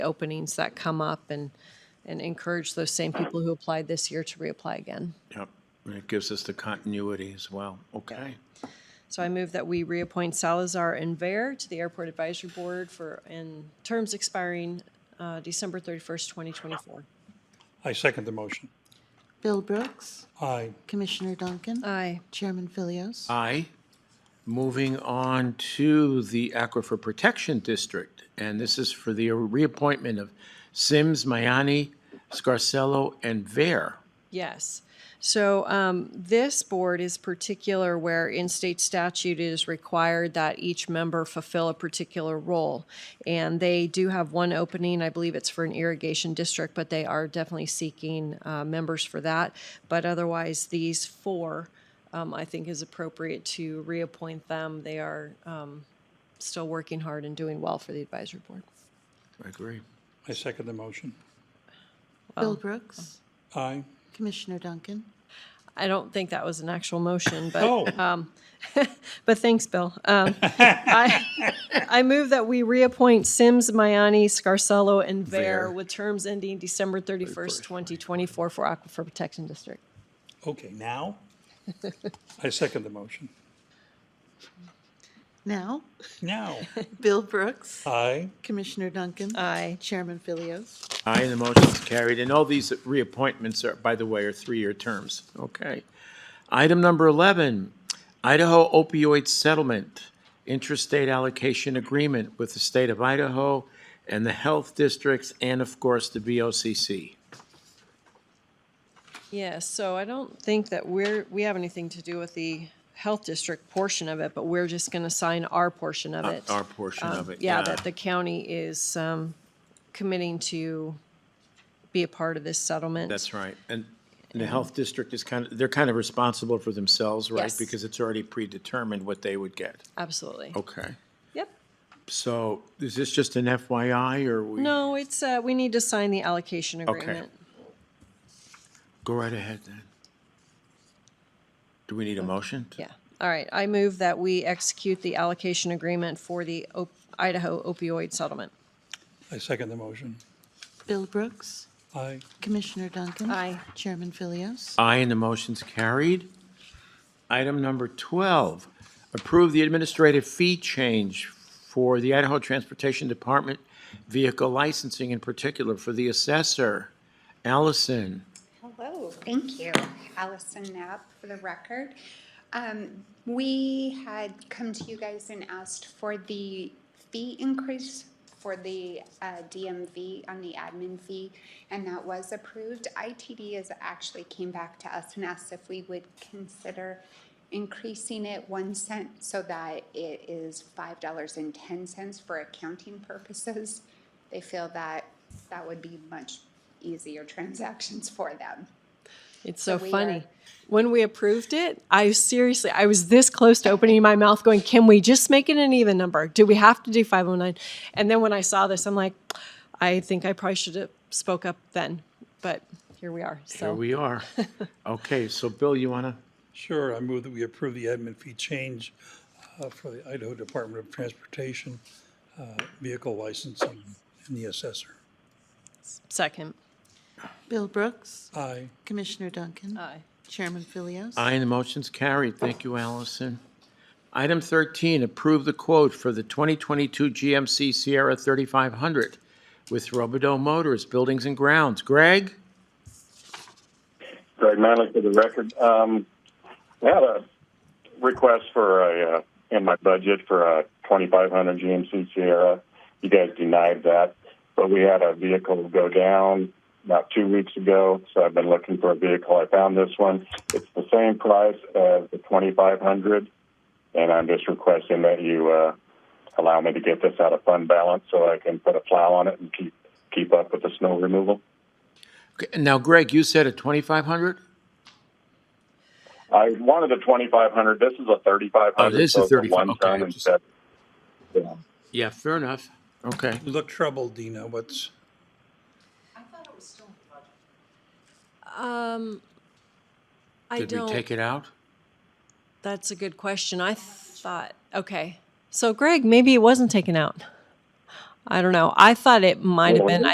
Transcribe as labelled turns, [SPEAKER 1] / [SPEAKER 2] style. [SPEAKER 1] openings that come up and, and encourage those same people who applied this year to reapply again.
[SPEAKER 2] Yep, and it gives us the continuity as well. Okay.
[SPEAKER 1] So I move that we reappoint Salazar and Vare to the Airport Advisory Board for, in terms expiring uh, December 31st, 2024.
[SPEAKER 3] I second the motion.
[SPEAKER 4] Bill Brooks,
[SPEAKER 3] Aye.
[SPEAKER 4] Commissioner Duncan,
[SPEAKER 1] Aye.
[SPEAKER 4] Chairman Philios.
[SPEAKER 2] Aye. Moving on to the Aquifer Protection District, and this is for the reappointment of Sims, Mayani, Scarsello, and Vare.
[SPEAKER 1] Yes. So um, this board is particular where in-state statute is required that each member fulfill a particular role. And they do have one opening, I believe it's for an irrigation district, but they are definitely seeking uh, members for that. But otherwise, these four, um, I think is appropriate to reappoint them. They are um, still working hard and doing well for the advisory board.
[SPEAKER 2] I agree.
[SPEAKER 3] I second the motion.
[SPEAKER 4] Bill Brooks,
[SPEAKER 3] Aye.
[SPEAKER 4] Commissioner Duncan,
[SPEAKER 1] I don't think that was an actual motion, but.
[SPEAKER 3] Oh,
[SPEAKER 1] But thanks, Bill. Um, I, I move that we reappoint Sims, Mayani, Scarsello, and Vare
[SPEAKER 2] Vare.
[SPEAKER 1] with terms ending December 31st, 2024 for Aquifer Protection District.
[SPEAKER 3] okay, now? I second the motion.
[SPEAKER 4] now,
[SPEAKER 3] Now?
[SPEAKER 4] Bill Brooks,
[SPEAKER 3] Aye.
[SPEAKER 4] Commissioner Duncan.
[SPEAKER 1] Aye.
[SPEAKER 4] Chairman Philios.
[SPEAKER 2] Aye, and the motion is carried. And all these reappointments are, by the way, are three-year terms. Okay. Item number 11, Idaho opioid settlement, interstate allocation agreement with the state of Idaho and the health districts, and of course, the BOCC.
[SPEAKER 1] Yes, so I don't think that we're, we have anything to do with the health district portion of it, but we're just going to sign our portion of it.
[SPEAKER 2] Uh,
[SPEAKER 1] Um,
[SPEAKER 2] Our portion of it,
[SPEAKER 1] Yeah,
[SPEAKER 2] yeah.
[SPEAKER 1] that the county is um, committing to be a part of this settlement.
[SPEAKER 2] That's right. And the health district is kind of, they're kind of responsible for themselves, right?
[SPEAKER 1] Yes.
[SPEAKER 2] Because it's already predetermined what they would get.
[SPEAKER 1] Absolutely.
[SPEAKER 2] Okay.
[SPEAKER 1] Yep.
[SPEAKER 2] So is this just an FYI, or we?
[SPEAKER 1] No, it's, uh, we need to sign the allocation
[SPEAKER 2] Okay.
[SPEAKER 1] agreement.
[SPEAKER 2] Go right ahead then. Do we need a motion?
[SPEAKER 1] Yeah, all right. I move that we execute the allocation agreement for the op- Idaho opioid settlement.
[SPEAKER 3] I second the motion.
[SPEAKER 4] Bill Brooks,
[SPEAKER 3] Aye.
[SPEAKER 4] Commissioner Duncan.
[SPEAKER 1] Aye.
[SPEAKER 4] Chairman Philios.
[SPEAKER 2] Aye, and the motion's carried. Item number 12, approve the administrative fee change for the Idaho Transportation Department vehicle licensing in particular for the assessor. Allison,
[SPEAKER 5] Hello, thank you. Allison Knapp for the record. Um, We had come to you guys and asked for the fee increase for the uh, DMV on the admin fee, and that was approved. ITD has actually came back to us and asked if we would consider increasing it one cent so that it is five dollars and ten cents for accounting purposes. They feel that that would be much easier transactions for them.
[SPEAKER 1] It's so
[SPEAKER 5] So we are-
[SPEAKER 1] funny. When we approved it, I seriously, I was this close to opening my mouth going, can we just make it an even number? Do we have to do 509? And then when I saw this, I'm like, I think I probably should have spoke up then, but here we are.
[SPEAKER 2] here
[SPEAKER 1] So,
[SPEAKER 2] we are. Okay, so Bill, you want to?
[SPEAKER 3] Sure, I move that we approve the admin fee change uh, for the Idaho Department of Transportation, uh, vehicle licensing, and the assessor.
[SPEAKER 1] second.
[SPEAKER 4] Bill Brooks,
[SPEAKER 3] Aye.
[SPEAKER 4] Commissioner Duncan.
[SPEAKER 1] Aye.
[SPEAKER 4] Chairman Philios.
[SPEAKER 2] Aye, and the motion's carried. Thank you, Allison. Item 13, approve the quote for the 2022 GMC Sierra 3500 with Robidoux Motors Buildings and Grounds. Greg?
[SPEAKER 6] Greg Manley for the record. Um, I had a request for a uh, in my budget for a 2500 GMC Sierra. You guys denied that, but we had a vehicle go down about two weeks ago, so I've been looking for a vehicle. I found this one. It's the same price as the 2500, and I'm just requesting that you uh, allow me to get this out of fund balance so I can put a plow on it and keep keep up with the snow removal.
[SPEAKER 2] Okay, Now, Greg, you said a 2500?
[SPEAKER 6] I wanted a 2500. This is a 3500.
[SPEAKER 2] Oh, this is
[SPEAKER 6] so it's a
[SPEAKER 2] 35,
[SPEAKER 6] one
[SPEAKER 2] okay,
[SPEAKER 6] ton
[SPEAKER 2] I just-
[SPEAKER 6] instead. Yeah.
[SPEAKER 2] Yeah, fair enough. Okay.
[SPEAKER 3] You look troubled, Dina. What's,
[SPEAKER 1] Um, I
[SPEAKER 2] Did we
[SPEAKER 1] don't,
[SPEAKER 2] take it out?
[SPEAKER 1] that's a good question. I thought, okay. So Greg, maybe it wasn't taken out. I don't know. I thought it might have been,